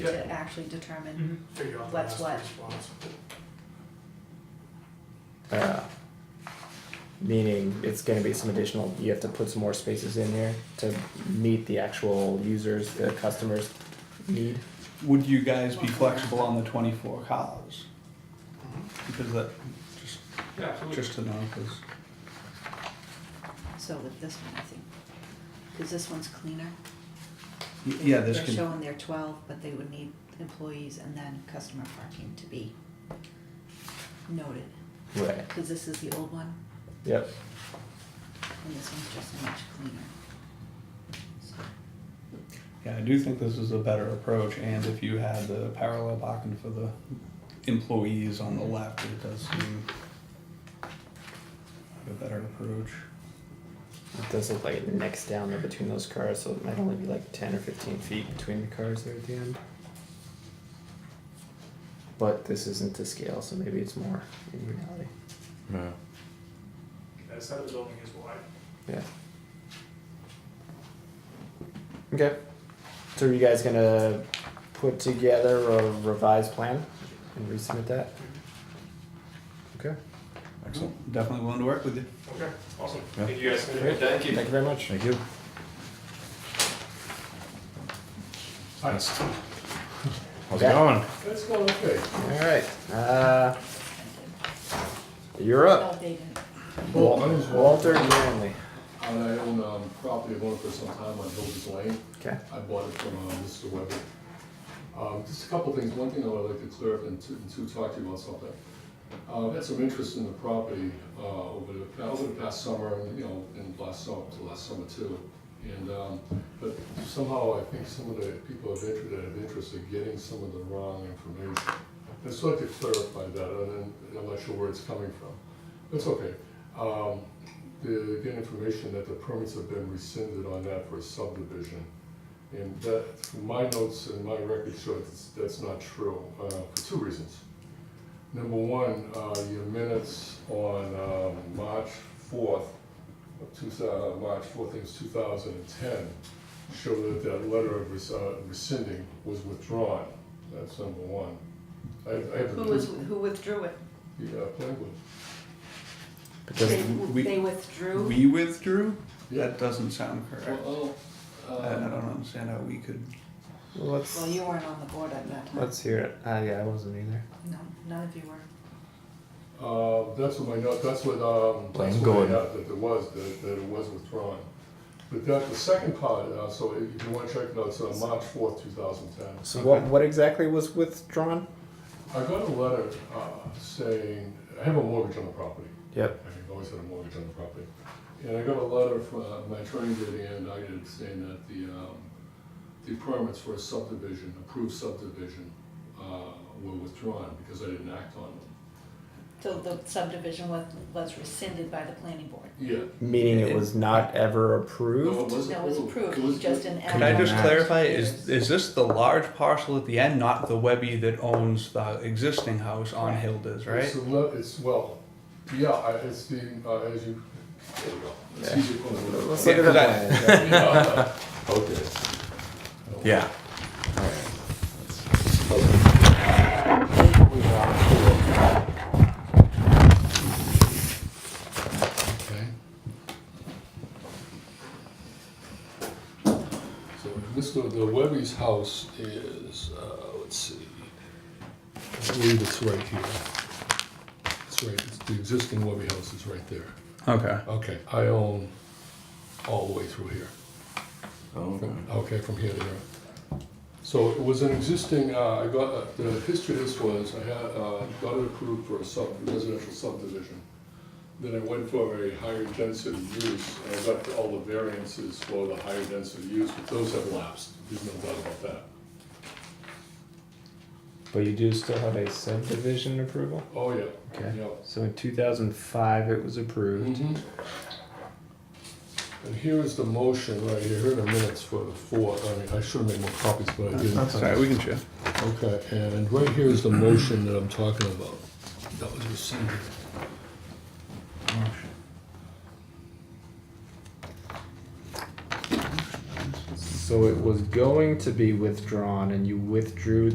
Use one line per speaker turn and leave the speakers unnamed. to actually determine.
Figure out the
What's
best
Mm-hmm. what?
response.
Uh, meaning it's going to be some additional. You have to put some more spaces in here to meet the actual users, the customers need.
Would you guys be flexible on the twenty-four cars?
Mm-hmm.
Because that, just,
Yeah, absolutely.
just to know, because
So with this one, I think, because this one's cleaner.
yeah, this
They're
can
showing their twelve, but they would need employees and then customer parking to be noted,
Right.
because this is the old one
Yep.
and this one's just much cleaner. So,
Yeah, I do think this is a better approach, and if you had the parallel parking for the employees on the left, it does seem like a better approach.
It does look like it necks down there between those cars, so it might only be like ten or fifteen feet between the cars there at the end. But this isn't to scale, so maybe it's more in reality.
Yeah.
That side of the building is wide.
Yeah. Okay. So are you guys gonna put together a revised plan and resubmit that? Okay.
Mm-hmm.
Excellent, definitely willing to work with you.
Okay, awesome.
Yeah.
Thank you guys.
Great.
Thank
Thank you very much.
Thank you.
Hi.
How's
Yeah.
it going?
Let's go, okay.
Alright, uh, you're up.
No, they didn't.
Well, my name's Walt,
Walter Manley.
and I own um, property, I've owned it for some time on Hilda's Lane.
Okay.
I bought it from uh, Mr. Weber. Um, Just a couple things, one thing I would like to clear up and to, and to talk to you about something. Uh, I've had some interest in the property uh, over the, pa- over the past summer, and, you know, and last summer, to last summer too. And, um, but somehow I think some of the people of interest, that have interest are getting some of the wrong information. I'd just like to clarify that, and then- and I'm not sure where it's coming from. That's okay. Um, the, get information that the permits have been rescinded on that for a subdivision. And that, from my notes and my record show that's, that's not true, uh, for two reasons. Number one, uh, your minutes on, um, March fourth, of two thou- uh, March fourth, I think it's two thousand and ten, show that that letter of res- uh, rescinding was withdrawn. That's number one. I, I have. the-
Who was, who withdrew it?
Yeah, language.
Because
They,
we-
they withdrew?
We withdrew?
Yeah.
That doesn't sound correct.
Well, oh,
I I
um,
don't understand how we could,
Let's,
Well, you weren't on the board at that time.
let's hear it. Uh, yeah, I wasn't either.
No, none of you were.
Uh, that's what my note, that's what, um, that's
Blame
what I
Gordon.
had, that there was, that, that it was withdrawn. But that, the second part, uh, so if you wanna check it out, it's on March fourth, two thousand ten.
So what, what exactly was withdrawn?
I got a letter, uh, saying, I have a mortgage on the property.
Yep.
I've always had a mortgage on the property. And I got a letter from, uh, my attorney did, and I did, saying that the, um, the permits for a subdivision, approved subdivision, uh, were withdrawn because I didn't act on them.
So the subdivision was, was rescinded by the planning board.
Yeah.
Meaning it was not ever
No,
approved?
was
That was approved,
It was-
just an.
could I just
Yeah.
clarify, is, is this the large parcel at the end, not the Webby that owns the existing house on Hilda's,
It's,
right?
the le- it's well, yeah, I- it's the, uh, as you, there you go. It's
Yeah.
easier for me to-
Let's look at the
Yeah,
plan.
Yeah. Okay.
Yeah.
Okay. So Mr. The Webby's house is, uh, let's see, I believe it's right here. It's right, it's- the existing Webby house is right there.
Okay.
Okay, I own all the way through here.
Okay.
Okay, from here to here. So it was an existing, uh, I got, uh, the history of this was, I had, uh, got it approved for a sub, residential subdivision. Then I went for a higher density use, and I got all the variances for the higher density use, but those have lapsed, there's no doubt about that.
But you do still have a subdivision approval?
Oh, yeah,
Okay.
yeah.
So in two thousand five, it was approved.
Mhm. And here is the motion right here, here are the minutes for the four, I mean, I should have made more copies, but I didn't.
Sorry, we can share.
Okay, and right here is the motion that I'm talking about. That was rescinded.
So it was going to be withdrawn and you withdrew